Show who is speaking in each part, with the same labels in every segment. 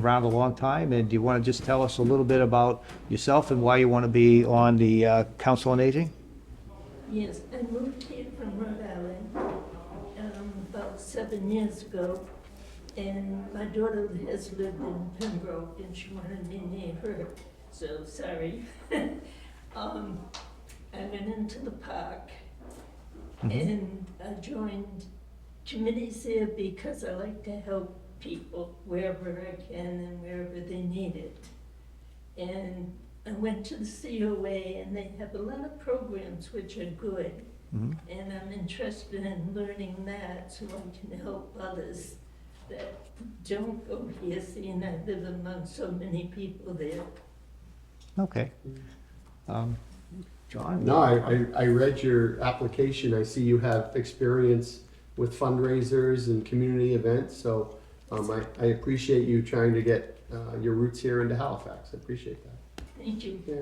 Speaker 1: around a long time, and do you want to just tell us a little bit about yourself and why you want to be on the uh, Council on Aging?
Speaker 2: Yes, I moved here from Rhode Island um, about seven years ago, and my daughter has lived in Pembroke, and she wanted me near her, so sorry. Um, I went into the park, and I joined committees there because I like to help people wherever I can and wherever they need it. And I went to the COA and they have a lot of programs which are good.
Speaker 1: Mhm.
Speaker 2: And I'm interested in learning that so I can help others that don't go here seeing I live among so many people there.
Speaker 1: Okay. Um, John?
Speaker 3: No, I, I, I read your application. I see you have experience with fundraisers and community events, so um, I, I appreciate you trying to get uh, your roots here into Halifax. I appreciate that.
Speaker 2: Thank you.
Speaker 3: Yeah.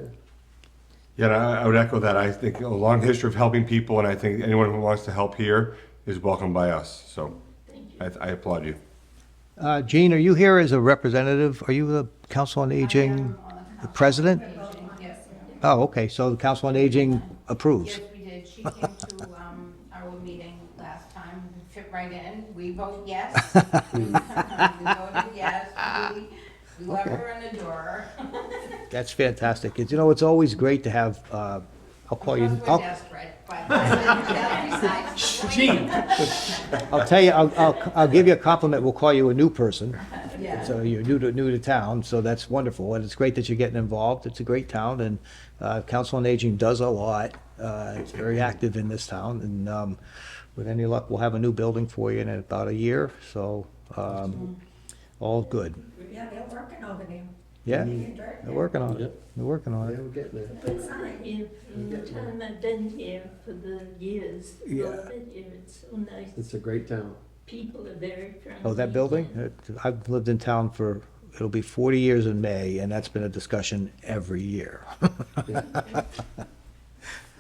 Speaker 4: Yeah, and I, I would echo that. I think a long history of helping people, and I think anyone who wants to help here is welcome by us. So
Speaker 2: Thank you.
Speaker 4: I, I applaud you.
Speaker 1: Uh, Jean, are you here as a representative? Are you the Council on Aging president?
Speaker 5: Yes,
Speaker 1: Oh, okay, so the Council on Aging approves.
Speaker 5: yes, we did. She came to um, our meeting last time, fit right in. We vote yes. We voted yes. We- We love her and adore her.
Speaker 1: That's fantastic. It's- You know, it's always great to have, uh, I'll call you,
Speaker 5: Plus, we're
Speaker 1: I'll,
Speaker 5: desperate, but that besides the point.
Speaker 1: I'll tell you, I'll, I'll, I'll give you a compliment. We'll call you a new person.
Speaker 5: Yeah.
Speaker 1: So you're new to, new to town, so that's wonderful, and it's great that you're getting involved, it's a great town, and, uh, Council on Aging does a lot, uh, it's very active in this town, and, um, with any luck, we'll have a new building for you in about a year, so, um, all good.
Speaker 6: Yeah, they're working over there.
Speaker 1: Yeah,
Speaker 6: They're
Speaker 1: they're working on it, they're working on
Speaker 3: Yeah,
Speaker 1: it.
Speaker 3: we're getting there.
Speaker 6: Good sign.
Speaker 2: Here, from the time I've been here for the years,
Speaker 1: Yeah.
Speaker 2: I've been here, it's so nice.
Speaker 3: It's a great town.
Speaker 2: People are very friendly.
Speaker 1: Oh, that building, It- I've lived in town for, it'll be forty years in May, and that's been a discussion every year.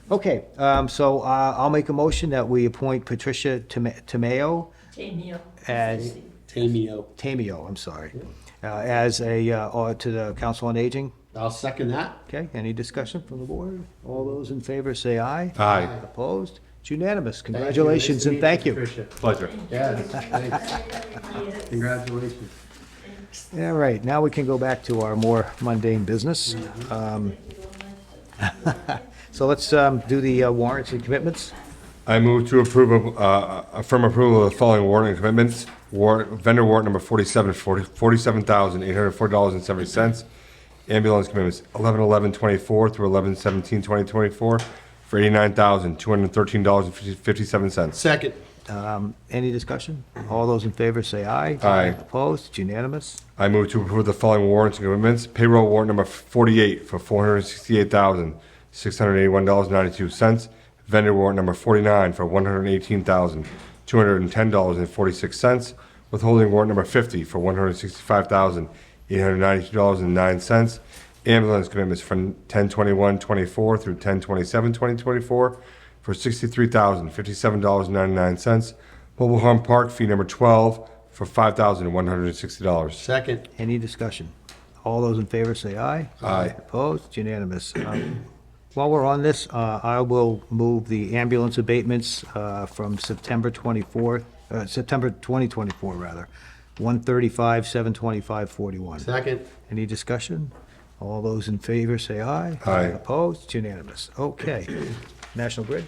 Speaker 1: Okay, um, so, uh, I'll make a motion that we appoint Patricia Tome- Tomeo
Speaker 2: Tamio.
Speaker 1: As- Tamio, I'm sorry, uh, as a, uh, or to the Council on Aging.
Speaker 3: I'll second that.
Speaker 1: Okay, any discussion from the board? All those in favor say aye.
Speaker 4: Aye,
Speaker 1: Opposed? It's unanimous.
Speaker 3: Thank you. Nice
Speaker 1: Congratulations
Speaker 3: to
Speaker 1: and
Speaker 3: meet
Speaker 1: thank you.
Speaker 3: Patricia.
Speaker 4: pleasure.
Speaker 3: Yes, thanks.
Speaker 2: Yes.
Speaker 3: Congratulations.
Speaker 1: All right, now we can go back to our more mundane business. Um, So let's um, do the uh, warrants and commitments.
Speaker 4: I move to approve of, uh, affirm approval of the following warrant and commitments. Warrant, vendor warrant number forty-seven, forty, forty-seven thousand, eight hundred four dollars and seventy cents. Ambulance commitments, eleven, eleven, twenty-four through eleven, seventeen, twenty, twenty-four for eighty-nine thousand, two hundred thirteen dollars and fifty-seven cents.
Speaker 3: Second.
Speaker 1: Um, Any discussion? All those in favor say aye.
Speaker 4: Aye.
Speaker 1: Opposed? It's unanimous.
Speaker 4: I move to approve the following warrants and commitments. Payroll warrant number 48 for $468,681.92. Vendor warrant number 49 for $118,210.46. Withholding warrant number 50 for $165,892.09. Ambulance commitments from 10/21/24 through 10/27/2024 for sixty-three thousand fifty-seven dollars and ninety-nine cents. Mobile Home Park fee number twelve for five thousand one hundred and sixty dollars.
Speaker 3: Second.
Speaker 1: Any discussion? All those in favor say aye.
Speaker 4: Aye.
Speaker 1: Opposed? It's unanimous. Um, While we're on this, uh, I will move the ambulance abatements uh, from September 24, uh, September 2024, rather, 135, 725, 41.
Speaker 3: Second.
Speaker 1: Any discussion? All those in favor say aye.
Speaker 4: Aye.
Speaker 1: Opposed? It's unanimous. Okay. National Grid?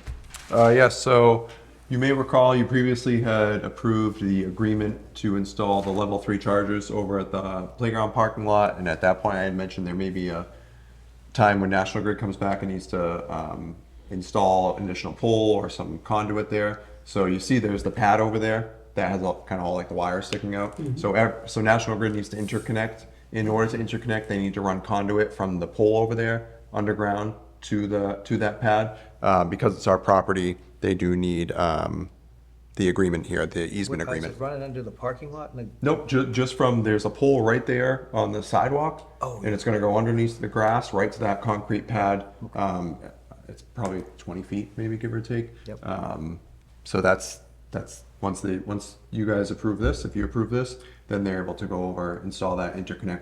Speaker 7: Uh, Yes, so you may recall you previously had approved the agreement to install the level three chargers over at the playground parking lot. And at that point, I had mentioned there may be a time when National Grid comes back and needs to um, install an additional pole or some conduit there. So you see there's the pad over there that has all, kind of all like the wires sticking out. So ev- so National Grid needs to interconnect. In order to interconnect, they need to run conduit from the pole over there underground to the to that pad. Uh, because it's our property, they do need um, the agreement here, the easement
Speaker 1: What, is
Speaker 7: agreement.
Speaker 1: it Running under the parking lot? and the-
Speaker 7: Nope, ju- just from there's a pole right there on the sidewalk.
Speaker 1: Oh.
Speaker 7: And it's going to go underneath the grass, right to that concrete pad. Um, it's probably 20 feet, maybe give or take.
Speaker 1: Yep.
Speaker 7: Um, so that's that's once the once you guys approve this, if you approve this, then they're able to go over, install that interconnect